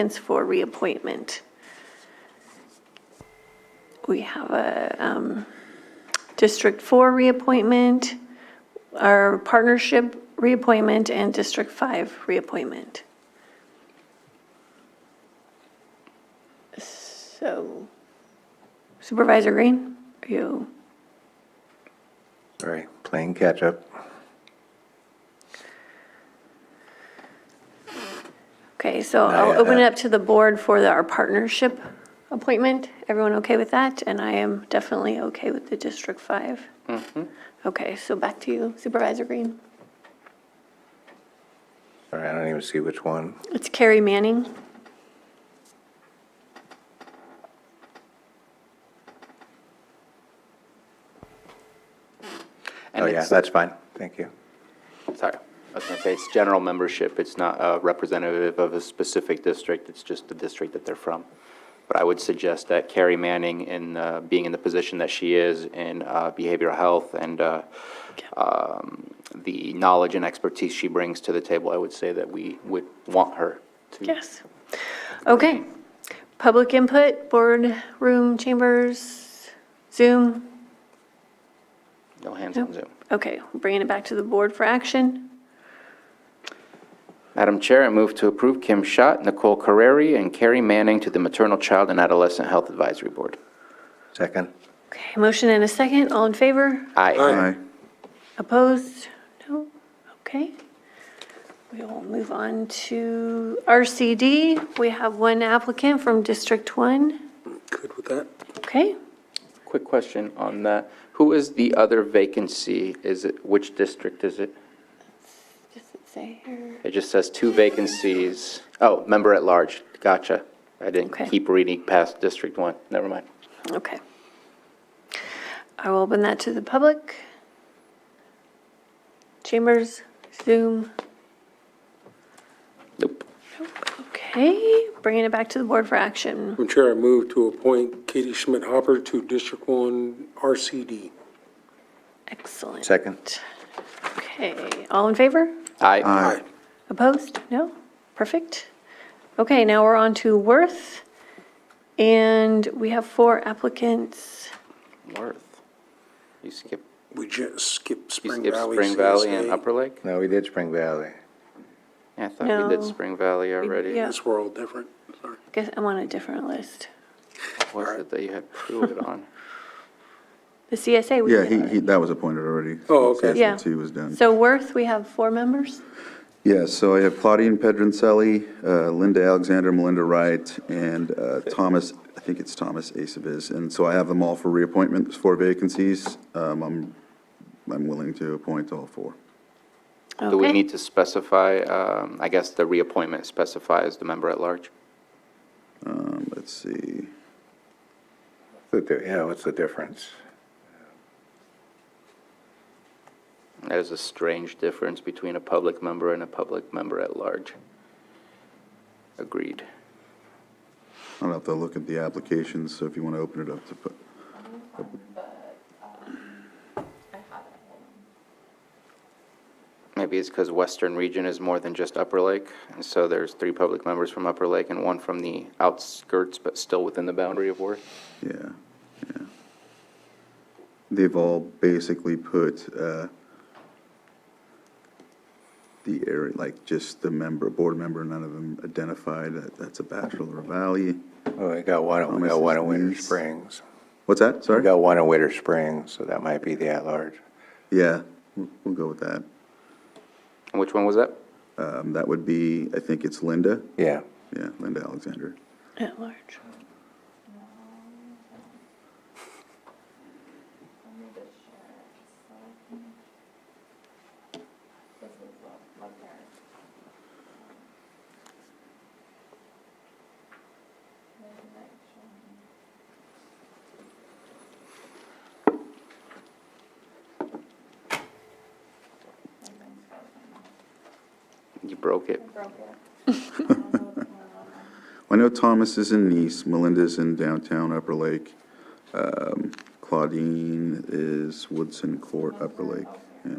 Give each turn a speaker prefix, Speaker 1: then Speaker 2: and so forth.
Speaker 1: applicants for reappointment. We have a um, District 4 reappointment, our partnership reappointment, and District 5 reappointment. So Supervisor Green, are you?
Speaker 2: Sorry, playing catch-up.
Speaker 1: Okay, so
Speaker 2: No,
Speaker 1: I'll
Speaker 2: yeah,
Speaker 1: open it
Speaker 2: uh,
Speaker 1: up to the board for the- our partnership appointment. Everyone okay with that? And I am definitely okay with the District 5. Okay, so back to you Supervisor Green.
Speaker 2: Sorry, I don't even see which one.
Speaker 1: It's Carrie Manning.
Speaker 2: Oh,
Speaker 3: And
Speaker 2: Oh, yeah,
Speaker 3: it's,
Speaker 2: that's fine. Thank you.
Speaker 3: Oh, sorry, I was gonna say, it's general membership, it's not uh, representative of a specific district, it's just the district that they're from. But I would suggest that Carrie Manning, in, uh, being in the position that she is in uh, behavioral health and uh, um, the knowledge and expertise she brings to the table, I would say that we would want her to.
Speaker 1: Yes. Okay. Public input, board room, chambers, Zoom.
Speaker 3: No hands on Zoom.
Speaker 1: Okay, bringing it back to the board for action.
Speaker 3: Madam Chair, I move to approve Kim Schott, Nicole Carreri, and Carrie Manning to the Maternal Child and Adolescent Health Advisory Board.
Speaker 2: Second?
Speaker 1: Okay, motion and a second. All in favor?
Speaker 3: Aye.
Speaker 1: Opposed? No? Okay. We will move on to RCD. We have one applicant from District 1.
Speaker 4: Good with that.
Speaker 1: Okay,
Speaker 3: Quick question on that. Who is the other vacancy? Is it, which district is it?
Speaker 1: does it say here?
Speaker 3: It just says two vacancies. Oh, member at large. Gotcha. I
Speaker 1: Okay.
Speaker 3: didn't keep reading past District One. Never mind.
Speaker 1: Okay. I will open that to the public. Chambers, Zoom.
Speaker 3: Nope.
Speaker 1: Okay, bringing it back to the board for action.
Speaker 4: Madam Chair, I move to appoint Katie Schmidt Hopper to District One RCD.
Speaker 1: Excellent.
Speaker 2: Second.
Speaker 1: Okay, all in favor?
Speaker 3: Aye.
Speaker 4: Aye.
Speaker 1: Opposed? No? Perfect. Okay, now we're on to Worth, and we have four applicants.
Speaker 3: Worth. You skip,
Speaker 4: We just skipped
Speaker 3: you
Speaker 4: Spring
Speaker 3: skip
Speaker 4: Valley.
Speaker 3: Spring Valley and
Speaker 4: CSA.
Speaker 3: Upper Lake?
Speaker 2: No, we did Spring Valley.
Speaker 3: Yeah, I thought we
Speaker 1: No.
Speaker 3: did Spring Valley already.
Speaker 1: yeah.
Speaker 4: This world different. Sorry.
Speaker 1: Guess I'm on a different list.
Speaker 3: Was it that you had Pruitt on?
Speaker 1: The CSA. we
Speaker 5: Yeah,
Speaker 1: did
Speaker 5: he,
Speaker 1: already.
Speaker 5: he, that was appointed already.
Speaker 4: Oh, okay.
Speaker 1: Yeah.
Speaker 5: He was done.
Speaker 1: So Worth, we have four members?
Speaker 5: Yeah, so I have Claudine Pedrincelli, uh, Linda Alexander, Melinda Wright, and uh, Thomas, I think it's Thomas Acevis. And so I have them all for reappointment, there's four vacancies. Um, I'm, I'm willing to appoint all four.
Speaker 3: Do we
Speaker 1: Okay.
Speaker 3: need to specify, um, I guess the reappointment specifies the member at large?
Speaker 5: Um, Let's see,
Speaker 2: But there- Yeah, what's the difference?
Speaker 3: That is a strange difference between a public member and a public member at large. Agreed.
Speaker 5: I'll have to look at the applications, so if you want to open it up to put,
Speaker 3: Maybe it's because Western Region is more than just Upper Lake, and so there's three public members from Upper Lake and one from the outskirts, but still within the boundary of Worth.
Speaker 5: yeah, yeah. They've all basically put uh, the area, like just the member, board member, none of them identified that that's a bachelor or valley.
Speaker 2: Oh, we got one, we
Speaker 5: Thomas
Speaker 2: got one in
Speaker 5: is
Speaker 2: Winter
Speaker 5: Leeds.
Speaker 2: Springs.
Speaker 5: What's that,
Speaker 2: We
Speaker 5: sorry?
Speaker 2: got one in Winter Springs, so that might be the at-large.
Speaker 5: Yeah, we'll we'll go with that.
Speaker 3: And which one was that?
Speaker 5: Um, That would be, I think it's Linda,
Speaker 2: Yeah.
Speaker 5: yeah, Linda Alexander.
Speaker 1: At large.
Speaker 3: You broke it.
Speaker 5: I know Thomas is in Nice, Melinda's in downtown Upper Lake, um, Claudine is Woodson Court, Upper Lake, yeah.